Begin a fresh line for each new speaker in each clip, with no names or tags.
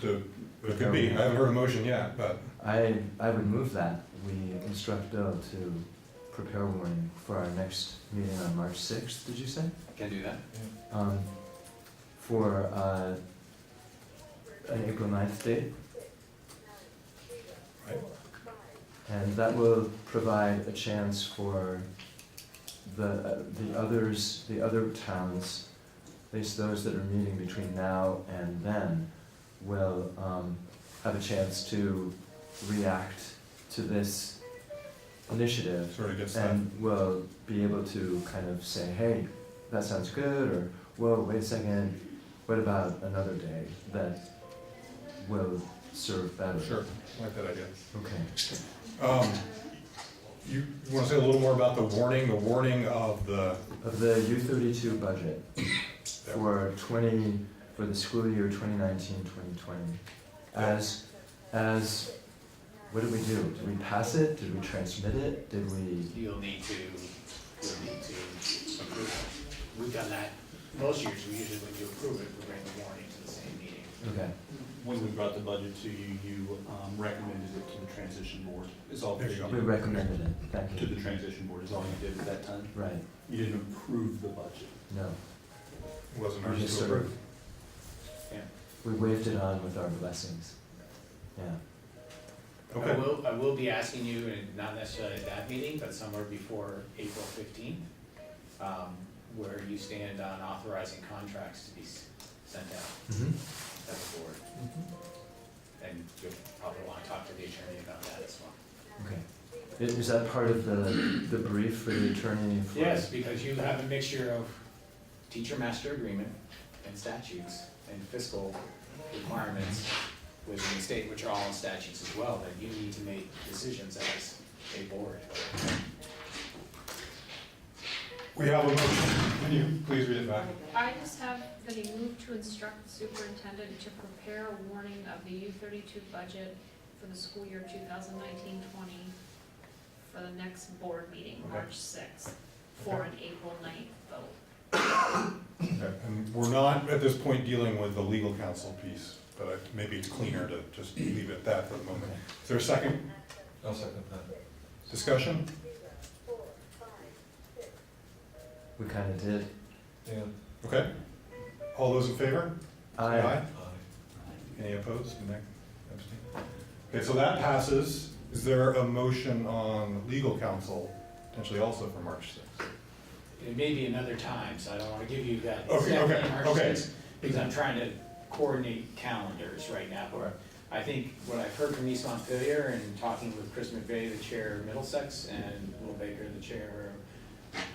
to, it could be, I haven't heard a motion yet, but
I, I would move that we instruct Bill to prepare warning for our next meeting on March sixth, did you say?
Can do that.
Um, for, uh, an April 9th date.
Right.
And that will provide a chance for the, uh, the others, the other towns, at least those that are meeting between now and then, will, um, have a chance to react to this initiative
sort of gets that.
and will be able to kind of say, hey, that sounds good, or whoa, wait a second, what about another day that will serve better?
Sure, I like that idea.
Okay.
Um, You want to say a little more about the warning, the warning of the,
Of the U thirty-two budget for twenty, for the school year 2019-2020, as, as, what did we do? Did we pass it? Did we transmit it? Did we,
You'll need to, you'll need to approve it. We've done that most years, we usually, when you approve it, we bring the warning to the same meeting.
okay,
When we brought the budget to you, you um, recommended it to the transition board, is all.
There you go.
we recommended it, thank
To
you.
the transition board is all you did at that time.
Right,
You didn't approve the budget.
no,
wasn't
we
ours
just
to
sort of
approve?
We waved it on with our blessings. Yeah.
I
Okay,
will, I will be asking you, and not necessarily at that meeting, but somewhere before April fifteenth, um, where you stand on authorizing contracts to be s- sent out to the board. And you'll probably wanna talk to the attorney about that as well.
Okay. I- Is that part of the, the brief for the attorney? for-
Yes, because you have a mixture of teacher master agreement and statutes and fiscal requirements within the state, which are all in statutes as well, that you need to make decisions as a board.
we have a motion. Can you please read it back?
I just have that he moved to instruct the superintendent to prepare a warning of the U thirty-two budget for the school year 2019-20 for the next board meeting,
Okay.
March sixth, for an April 9th vote.
Okay, And we're not at this point dealing with the legal counsel piece, but I- maybe it's cleaner to just leave it at that for the moment. Is there a second
I'll second that.
discussion?
We kind of did.
Yeah.
Okay, all those in favor?
I,
Any opposed? Nay? Abstain? Okay, so that passes. Is there a motion on legal counsel, potentially also for March 6th?
It may be another time, so I don't wanna give you that
Okay,
exact
okay,
March
okay.
6th, because I'm trying to coordinate calendars right now. But I think what I've heard from East Montpelier and talking with Chris McVeigh, the chair of Middlesex, and Will Baker, the chair of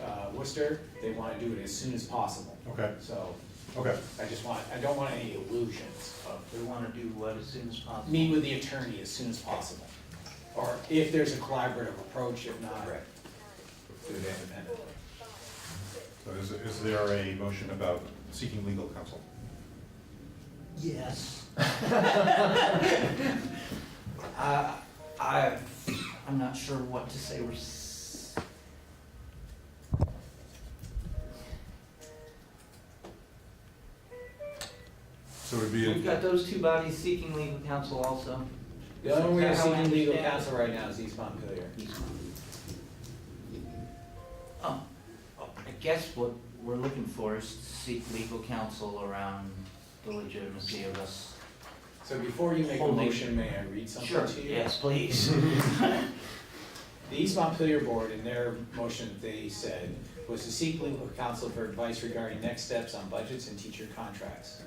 uh, Worcester, they wanna do it as soon as possible.
Okay,
So
okay,
I just want, I don't want any illusions of,
We want to do what as soon as possible.
meet with the attorney as soon as possible. Or if there's a collaborative approach, if not, do it independently.
so is, is there a motion about seeking legal counsel?
Yes. I, Uh, I, I'm not sure what to say. We're. s-
So it would
We've
be,
got those two bodies seeking legal counsel also.
The only way
Is
we're
that how I
seeking legal
understand it?
counsel right now is East Montpelier.
Oh, oh, I guess what we're looking for is to seek legal counsel around the legitimacy of us.
So before you make a
Holding.
motion, may I read something
Sure,
to you?
yes, please.
The East Montpelier Board, in their motion that they said, was to seek legal counsel for advice regarding next steps on budgets and teacher contracts.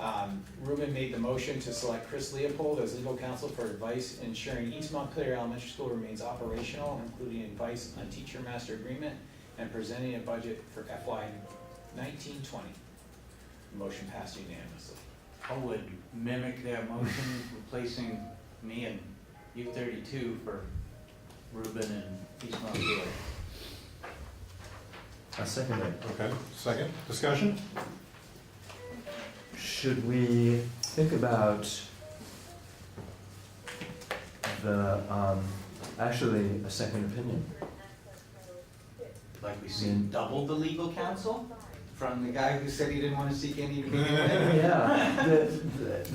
Um, Ruben made the motion to select Chris Leopold as legal counsel for advice ensuring East Montpelier Elementary School remains operational, including advice on teacher master agreement and presenting a budget for FY nineteen twenty. Motion passed unanimously.
I would mimic that motion, replacing me and U thirty-two for Ruben and East Montpelier.
I second it.
okay, second, discussion?
Should we think about the, um, actually, a second opinion?
Like we seen double the legal counsel from the guy who said he didn't wanna seek any.
Yeah, the, the,